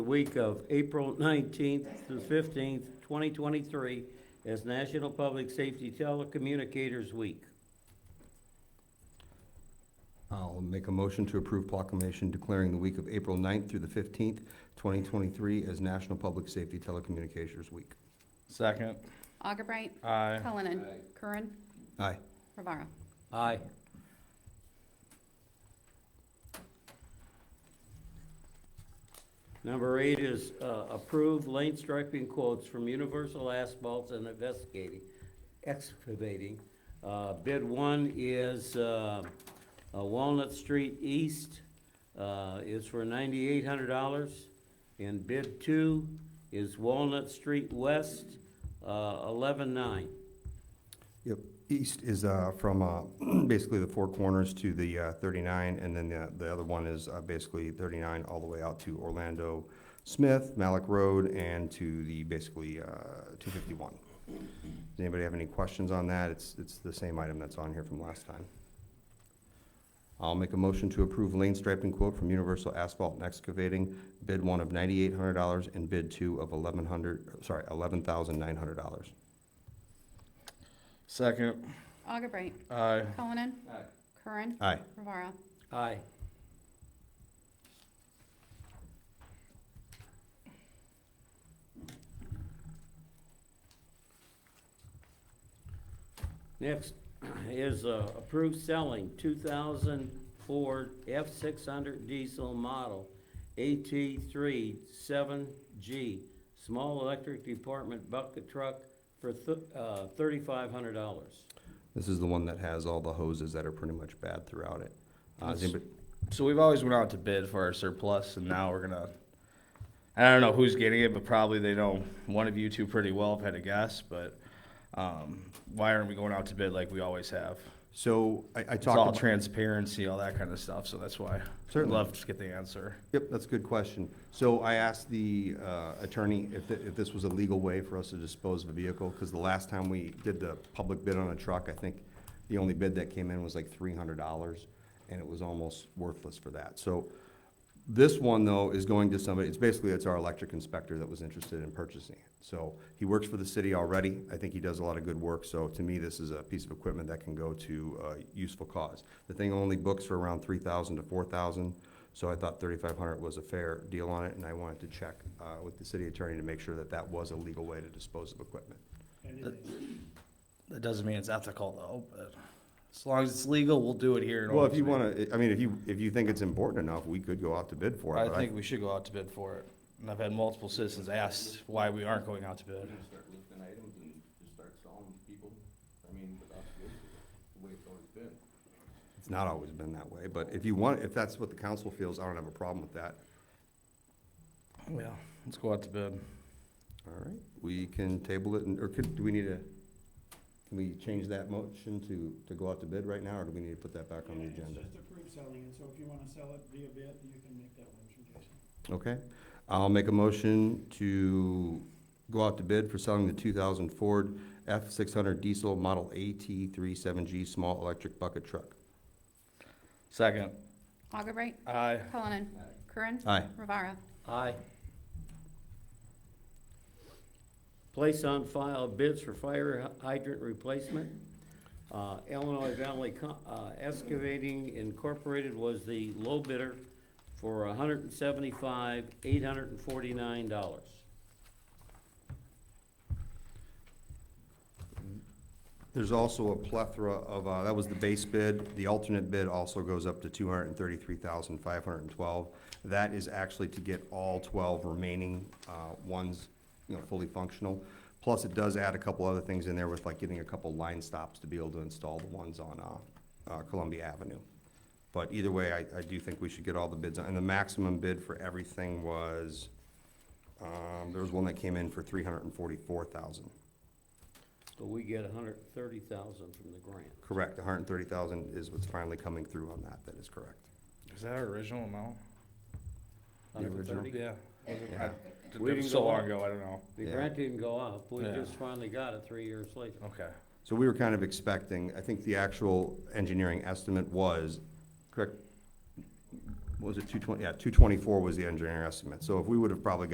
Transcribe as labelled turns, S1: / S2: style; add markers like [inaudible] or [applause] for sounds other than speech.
S1: the week of April 19th through 15th, 2023, as National Public Safety Telecommunicators Week.
S2: I'll make a motion to approve proclamation declaring the week of April 9th through the 15th, 2023 as National Public Safety Telecommunications Week.
S3: Second.
S4: Augubright.
S3: Aye.
S4: Cullinan. Curran.
S2: Aye.
S4: Revara.
S1: Aye. Number eight is uh, approve lane striping quotes from Universal Asphalt and Investigating, Excavating. Uh, Bid one is uh, uh, Walnut Street East uh, is for ninety-eight hundred dollars. And bid two is Walnut Street West, uh, eleven-nine.
S2: Yep. East is uh, from uh, [clears throat] basically the four corners to the uh, 39, and then the the other one is uh, basically 39 all the way out to Orlando Smith, Malik Road, and to the basically uh, 251. Does anybody have any questions on that? It's it's the same item that's on here from last time. I'll make a motion to approve lane striping quote from Universal Asphalt and Excavating, bid one of $9,800 and bid two of 1,100, sorry, $11,900.
S3: Second.
S4: Augubright.
S3: Aye.
S4: Cullinan. Curran.
S2: Aye.
S4: Revara.
S1: Aye. Next [clears throat] is uh, approved selling two thousand Ford F six hundred diesel model AT three seven G, small electric department bucket truck for uh, thirty-five hundred dollars.
S2: This is the one that has all the hoses that are pretty much bad throughout it. Uh, does
S3: Yes.
S2: anybody-
S3: So we've always went out to bid for our surplus, and now we're gonna. I don't know who's getting it, but probably they know one of you two pretty well. If I had to guess, but um, why aren't we going out to bid like we always have?
S2: So I, I
S3: It's all
S2: talked, about-
S3: transparency, all that kind of stuff. So that's why.
S2: Certainly.
S3: Love to get the answer.
S2: yep, that's a good question. So I asked the uh, attorney if, th- if this was a legal way for us to dispose of a vehicle, because the last time we did the public bid on a truck, I think the only bid that came in was like three hundred dollars, and it was almost worthless for that. So This one, though, is going to somebody, it's basically, it's our electric inspector that was interested in purchasing it. So he works for the city already. I think he does a lot of good work, so to me, this is a piece of equipment that can go to a useful cause. The thing only books for around three thousand to four thousand, so I thought thirty-five hundred was a fair deal on it, and I wanted to check uh, with the city attorney to make sure that that was a legal way to dispose of equipment.
S3: That doesn't mean it's ethical though. But as long as it's legal, we'll do it here. in
S2: Well, if
S3: Old
S2: you
S3: Smith.
S2: want to, I mean, if you, if you think it's important enough, we could go out to bid for it.
S3: I
S2: but
S3: think we should go out to bid for it. And I've had multiple citizens ask why we aren't going out to bid.
S5: start listing items and just start selling people, I mean, without the issue, the way it's always been.
S2: It's not always been that way, but if you want, if that's what the council feels, I don't have a problem with that.
S3: Yeah, let's go out to bid.
S2: All right, we can table it, and- or could, do we need a, can we change that motion to, to go out to bid right now, or do we need to put that back on the agenda?
S6: It's just approved selling it, so if you wanna sell it via bid, you can make that motion, Jason.
S2: Okay, I'll make a motion to go out to bid for selling the two thousand Ford F six hundred diesel model AT 37 G small electric bucket truck.
S3: Second.
S4: Augubright.
S3: Aye.
S4: Cullinan. Curran.
S2: Aye.
S4: Revara.
S1: Aye. Place on file bids for fire hydrant replacement. Uh, Illinois Valley Co- uh, Excavating Incorporated was the low bidder for hundred and seventy-five, eight hundred and forty-nine dollars.
S2: There's also a plethora of, uh, that was the base bid. The alternate bid also goes up to two hundred and thirty-three thousand, five hundred and twelve. That is actually to get all twelve remaining, uh, ones, you know, fully functional. Plus, it does add a couple other things in there with like getting a couple line stops to be able to install the ones on, uh, uh, Columbia Avenue. But either way, I, I do think we should get all the bids. And the maximum bid for everything was, um, there was one that came in for three hundred and forty-four thousand.
S1: But we get $130,000 from the grant.
S2: Correct, hundred and thirty thousand is what's finally coming through on that, that is correct.
S3: Is that our original amount?
S2: The original?
S1: 130?
S3: Yeah.
S2: Yeah.
S1: We
S3: It
S1: didn't
S3: was so
S1: go
S3: long
S1: up.
S3: ago, I don't know.
S1: The
S2: Yeah.
S1: grant didn't go up, we
S3: Yeah.
S1: just finally got it three years later.
S3: Okay.
S2: So we were kind of expecting, I think the actual engineering estimate was, correct, what was it, two twenty, yeah, two twenty-four was the engineer estimate. So if we would have probably